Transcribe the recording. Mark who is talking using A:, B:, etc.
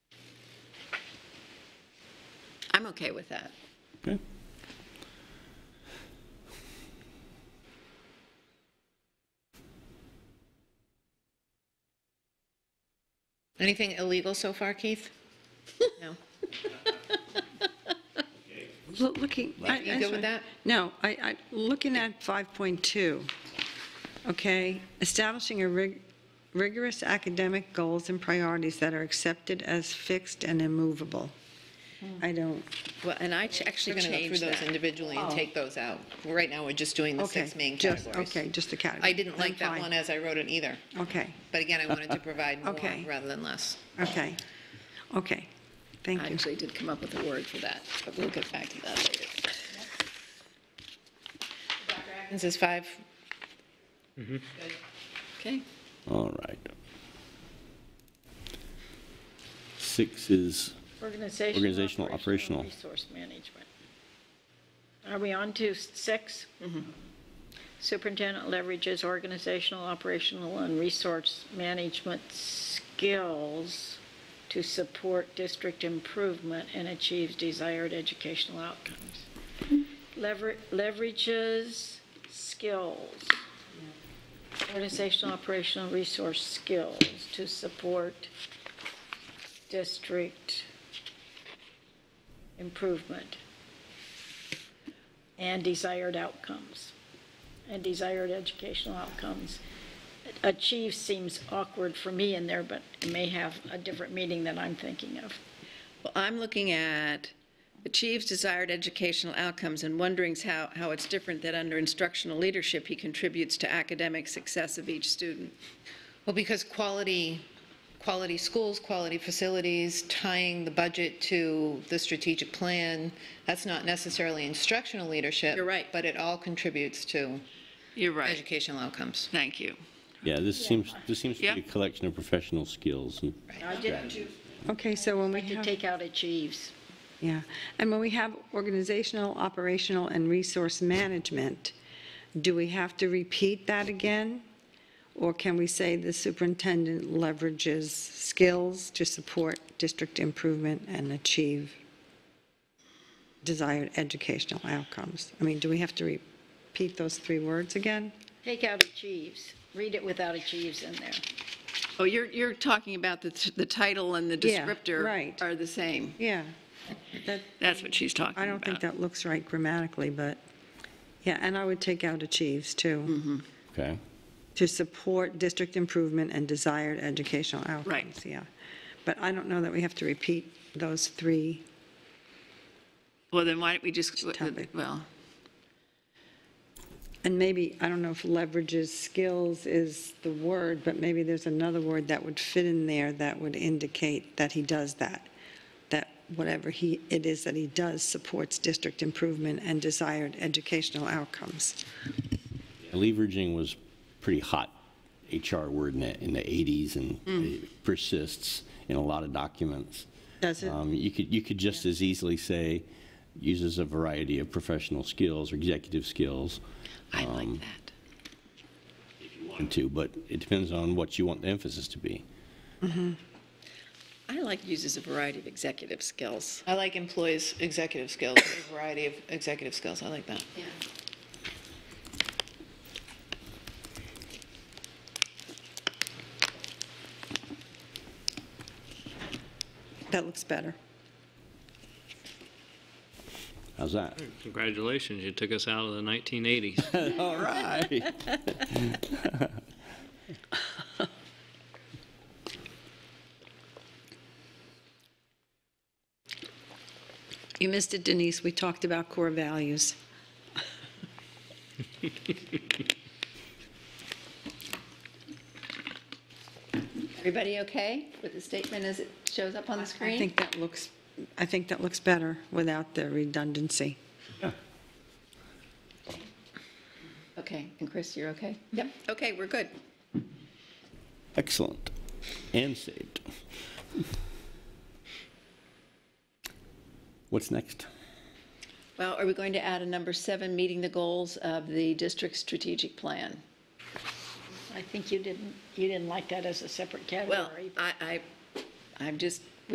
A: I'm okay with that.
B: Okay.
C: Anything illegal so far, Keith? No.
D: Loo- Looking. I-
C: You
D: I'm
C: good with
D: sorry.
C: that?
D: No, I, I, looking at 5.2, okay, establishing a rig- rigorous academic goals and priorities that are accepted as fixed and immovable.
C: Hmm.
D: I don't,
C: Well, and I ch- actually going to go through
A: Change
C: those
A: that.
C: individually and take those out. Right now, we're just doing the
D: Oh. okay.
C: six main
D: just-
C: categories.
D: Okay, just the category.
C: I didn't
D: Then
C: like that
D: fine.
C: one as I wrote it either,
D: Okay,
C: but again, I wanted to provide more
D: Okay.
C: rather than less.
D: okay, okay,
A: I
D: thank you.
A: actually did come up with a word for that, but we'll get back to that later.
C: This is five,
A: Okay?
B: All right. Six is,
E: Organizational.
B: Organizational, operational.
E: Resource management. Are we on to six? Superintendent leverages organizational, operational, and resource management skills to support district improvement and achieves desired educational outcomes. Lever- Leverages skills, organizational, operational, resource skills to support district improvement and desired outcomes, and desired educational outcomes. Achieve seems awkward for me in there, but it may have a different meaning than I'm thinking of.
A: Well, I'm looking at achieves desired educational outcomes and wondering how, how it's different that under instructional leadership, he contributes to academic success of each student.
C: well, because quality, quality schools, quality facilities, tying the budget to the strategic plan, that's not necessarily instructional leadership.
A: You're right.
C: But it all contributes to
F: You're right.
C: educational outcomes.
F: Thank you.
B: yeah, this seems, this seems to be a
F: Yep.
B: collection of professional skills. and-
E: I didn't
D: Okay, so when we
E: like to
D: have.
E: take out achieves.
D: Yeah, and when we have organizational, operational, and resource management, do we have to repeat that again? Or can we say the superintendent leverages skills to support district improvement and achieve desired educational outcomes? I mean, do we have to repeat those three words again?
E: Take out achieves. Read it without achieves in there.
A: Oh, you're, you're talking about the, t- the title and the
D: Yeah,
A: descriptor
D: right.
A: are the same.
D: Yeah, that,
F: That's what she's talking about.
D: I don't
A: Uh,
D: think that looks right grammatically, but, yeah, and I would take out achieves, too.
B: Okay,
D: to support district improvement and desired educational outcomes.
F: Right.
D: Yeah. But I don't know that we have to repeat those three.
F: Well, then why don't we just,
D: topic.
F: well,
D: And maybe, I don't know if leverages skills is the word, but maybe there's another word that would fit in there that would indicate that he does that. That whatever he, it is that he does supports district improvement and desired educational outcomes.
B: leveraging was pretty hot HR word in the, in the 80s and it persists in a lot of documents.
D: Mm. Does it?
B: Um, You could, you could just as easily say uses a variety of professional skills or executive skills.
F: I like
B: um,
F: that.
B: want to, but it depends on what you want the emphasis to be.
A: I like uses a variety of executive skills.
C: I like employees' executive skills, a variety of executive skills. I like that.
D: That looks better.
B: How's
D: Mm.
B: that?
G: Congratulations, you took us out of the 1980s.
B: All right.
D: You missed it, Denise. We talked about core values.
A: Everybody okay with the statement as it shows up on the
D: I
A: screen?
D: think that looks, I think that looks better without the redundancy.
A: Okay, and Chris, you're okay?
D: Mm-hmm.
A: Yep, okay, we're good.
B: Excellent. And saved. What's next?
A: Well, are we going to add a number seven, meeting the goals of the district's strategic plan?
E: I think you didn't, you didn't like that as a separate
A: Well,
E: category.
A: I, I, I'm just